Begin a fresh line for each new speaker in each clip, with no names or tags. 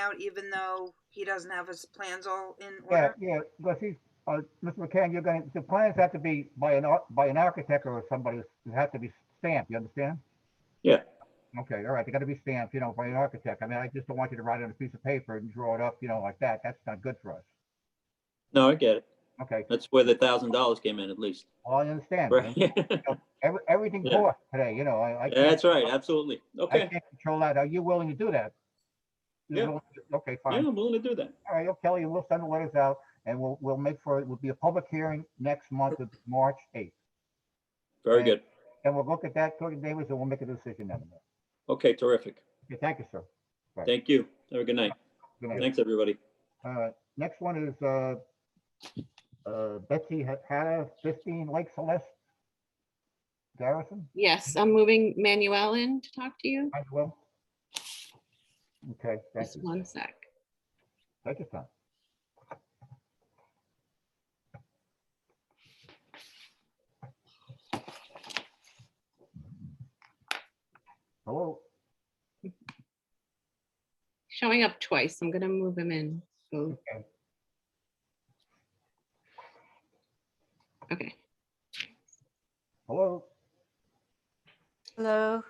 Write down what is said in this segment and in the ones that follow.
out even though he doesn't have his plans all in
Yeah,
order?
yeah, because he's, uh, Mr. McCann, you're gonna, the plans have to be by an, ar- by an architect or somebody, it have to be stamped, you understand?
Yeah.
Okay, all right, they gotta be stamped, you know, by an architect. I mean, I just don't want you to write it on a piece of paper and draw it up, you know, like that. That's not good for us.
No, I get it.
Okay,
That's where the thousand dollars came in at least.
well, I understand.
Right?
Every, everything
Yeah.
for today, you know, I, I can't,
That's right, absolutely.
I
Okay.
can't control that. Are you willing to do that? You're
Yeah.
willing to- Okay,
Yeah,
fine.
I'm willing to do that.
All right, okay, Kelly, we'll send the letters out and we'll, we'll make for, it will be a public hearing next month of March eighth.
Very
Right.
good.
And we'll look at that, talk to Davis, and we'll make a decision then.
Okay, terrific.
Okay, thank you, sir.
Thank you. Have a good night.
Good night.
Thanks, everybody.
Uh, next one is, uh, uh, Betsy Ha- Hannah, fifteen Lake Celeste. Garrison,
Yes, I'm moving Manuel in to talk to you.
I will. Okay, thank
Just
you.
one sec.
Take your time. Hello,
Showing up twice. I'm gonna move him in. So-
Okay.
Okay,
hello,
Hello?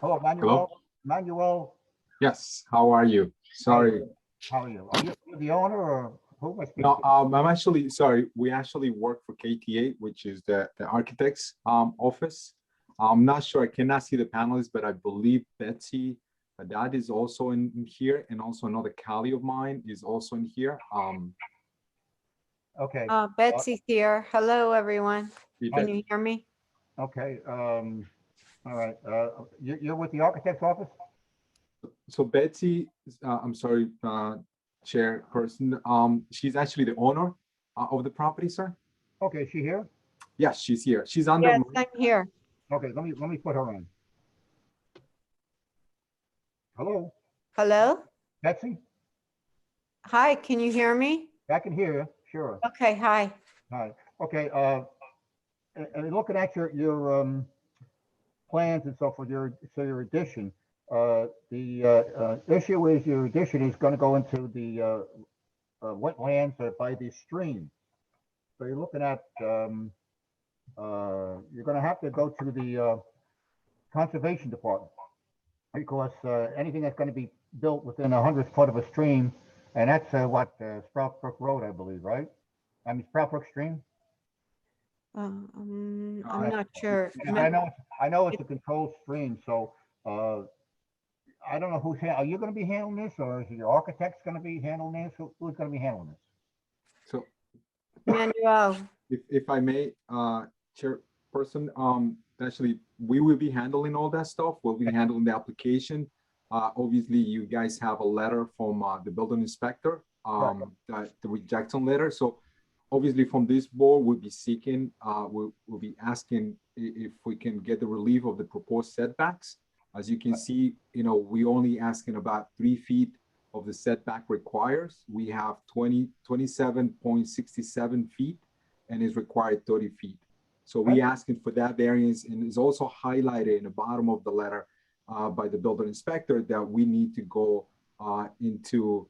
hello, Manuel, Manuel,
Yes, how are you? Sorry.
how are you? Are you the owner or who am I speaking
No,
to?
um, I'm actually, sorry, we actually work for KTA, which is the, the architect's, um, office. I'm not sure, I cannot see the panelists, but I believe Betsy, Haddad is also in in here, and also another colleague of mine is also in here. Um,
Okay,
Uh, Betsy's here. Hello, everyone.
you
Can
bet-
you hear me?
okay, um, all right, uh, you, you're with the architect's office?
so Betsy, uh, I'm sorry, uh, chairperson, um, she's actually the owner uh, of the property, sir?
Okay, is she here?
Yes, she's here. She's under,
Yes,
my-
I'm here.
Okay, let me, let me put her on. Hello,
Hello?
Betsy?
Hi, can you hear me?
I can hear you, sure.
Okay, hi.
Hi, okay, uh, and, and looking at your, your, um, plans and so forth, your, so your addition, uh, the, uh, uh, issue is your addition is gonna go into the, uh, uh, wetlands uh, by the stream. So you're looking at, um, uh, you're gonna have to go to the, uh, conservation department. Because, uh, anything that's gonna be built within a hundred foot of a stream, and that's, uh, what, uh, Sprout Brook Road, I believe, right? I mean, Sprout Brook Stream?
Um,
No, I-
I'm not sure.
Yeah, I know, it's- I know it's a controlled stream, so, uh, I don't know who's, han- are you gonna be handling this, or is your architect's gonna be handling this, Who- who's gonna be handling this?
so
Manuel,
If, if I may, uh, Chairperson, um, actually, we will be handling all that stuff. We'll be handling the application. Uh, obviously, you guys have a letter from, uh, the building inspector, um, that the rejection letter. So obviously, from this board, we'll be seeking, uh, we'll, we'll be asking i- if we can get the relief of the proposed setbacks. As you can see, you know, we only asking about three feet of the setback requires. We have 20, 27.67 feet and is required thirty feet. So we asking for that variance and is also highlighted in the bottom of the letter uh, by the building inspector that we need to go uh, into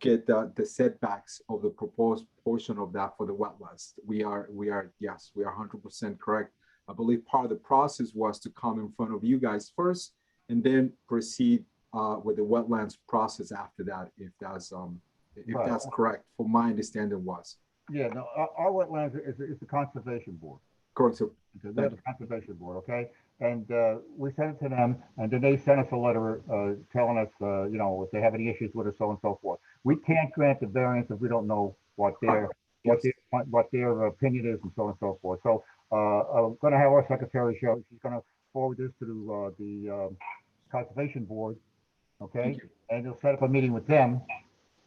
get the, the setbacks of the proposed portion of that for the wetlands. We are, we are, yes, we are hundred percent correct. I believe part of the process was to come in front of you guys first and then proceed uh, with the wetlands process after that, if that's, um, if
Right.
that's correct, from my understanding was.
Yeah, no, our, our wetlands is, is the conservation board,
Correct, so
because they're the conservation board, okay? And, uh, we sent it to them, and then they sent us a letter, uh, telling us, uh, you know, if they have any issues with us, so and so forth. We can't grant the variance if we don't know what their, what
Yes.
their, what- what their opinion is and so on and so forth. So, uh, I'm gonna have our secretary show, she's gonna forward this to, uh, the, um, conservation board, okay?
Thank you.
and you'll set up a meeting with them.
Yes.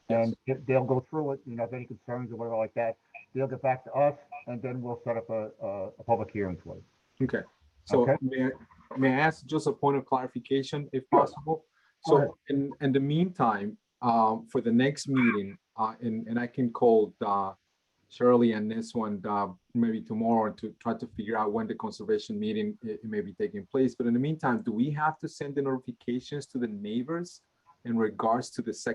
And they- they'll go through it, you know, if any concerns or whatever like that, they'll get back to us, and then we'll set up a, a, a public hearing for it.
Okay, so
Okay.
may, I- may I ask just a point of clarification if
Sure.
possible?
Go ahead.
So in, in the meantime, um, for the next meeting, uh, and, and I can call, uh, Shirley and this one, uh, maybe tomorrow to try to figure out when the conservation meeting i- it may be taking place. But in the meantime, do we have to send the notifications to the neighbors in regards to the second?